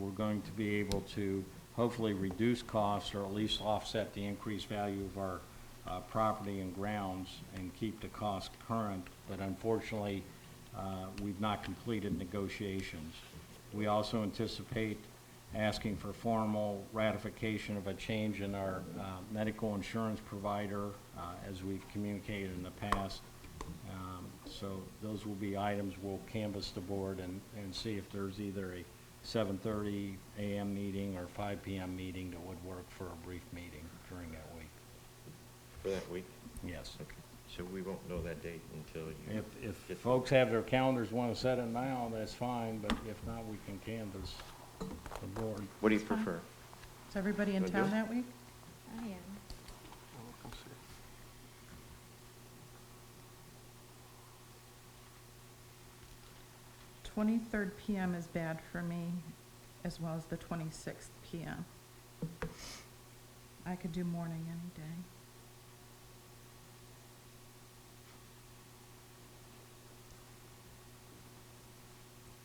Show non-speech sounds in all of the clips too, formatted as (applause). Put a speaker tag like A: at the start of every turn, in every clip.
A: we're going to be able to hopefully reduce costs or at least offset the increased value of our uh, property and grounds and keep the cost current. But unfortunately, uh, we've not completed negotiations. We also anticipate asking for formal ratification of a change in our uh, medical insurance provider, uh, as we've communicated in the past. Um, So those will be items we'll canvass the board and, and see if there's either a 7:30 AM meeting or 5 PM meeting that would work for a brief meeting during that week.
B: for that week.
A: Yes.
B: Okay, So we won't know that date until you.
A: If, if folks have their calendars, want to set it now, that's fine, but if not, we can canvass the board.
B: What do you prefer?
C: Is everybody in
B: Wanna do
C: town
B: it?
C: that week?
D: I am.
C: Twenty-third PM is bad for me, as well as the twenty-sixth PM. I could do morning any day.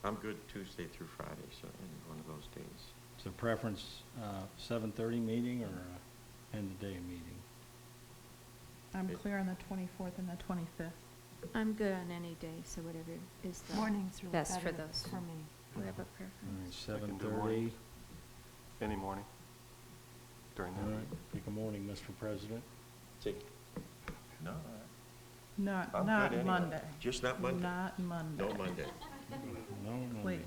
B: I'm good Tuesday through Friday, so any one of those days.
A: So preference, uh, 7:30 meeting or uh, end of day meeting?
C: I'm
B: It-
C: clear on the twenty-fourth and the twenty-fifth.
D: I'm good on any day, so whatever is the.
E: Mornings are
D: Best for
E: better
D: those.
E: for me.
D: We have a
A: All right,
D: preference.
F: I can do
A: 7:30.
F: morning. Any morning
A: All
F: during the
A: right,
F: week.
A: pick a morning, Mr. President.
B: Take. No,
C: Not,
B: I'm good anyway.
C: not Monday.
B: Just not Monday?
C: Not Monday.
B: no Monday.
A: No, no.
C: Please.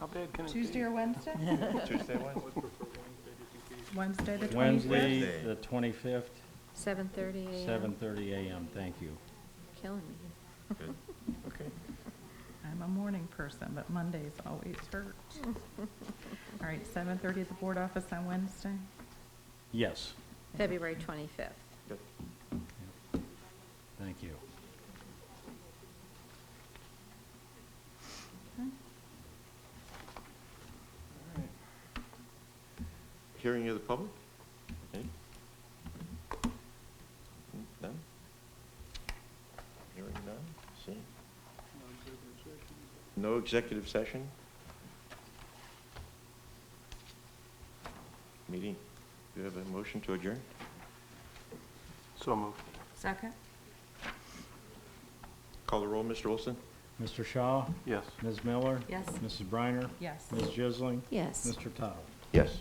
F: How bad can it be?
C: Tuesday or
F: (laughs)
C: Wednesday?
B: Tuesday, Wednesday.
C: Wednesday, the twenty-fifth?
A: Wednesday,
B: Wednesday.
A: the 25th,
D: Seven thirty AM.
A: 7:30 AM. Thank you.
D: Killing me.
B: Good. Okay.
C: I'm a morning person, but Mondays always
B: (laughs)
C: hurt. All right, seven-thirty at the board office on Wednesday?
A: Yes,
D: February twenty-fifth.
B: Good.
A: thank you.
C: Okay.
B: Hearing of the public? Any? None? Hearing none? See? No executive session? Meeting, do you have a motion to adjourn?
F: So moved.
E: Second?
B: Call the roll, Mr. Olson?
A: Mr. Shaw?
F: Yes.
A: Ms. Miller?
E: Yes.
A: Mrs. Briner?
C: Yes.
A: Ms. Jisling?
D: Yes.
A: Mr. Tuttle?
B: Yes.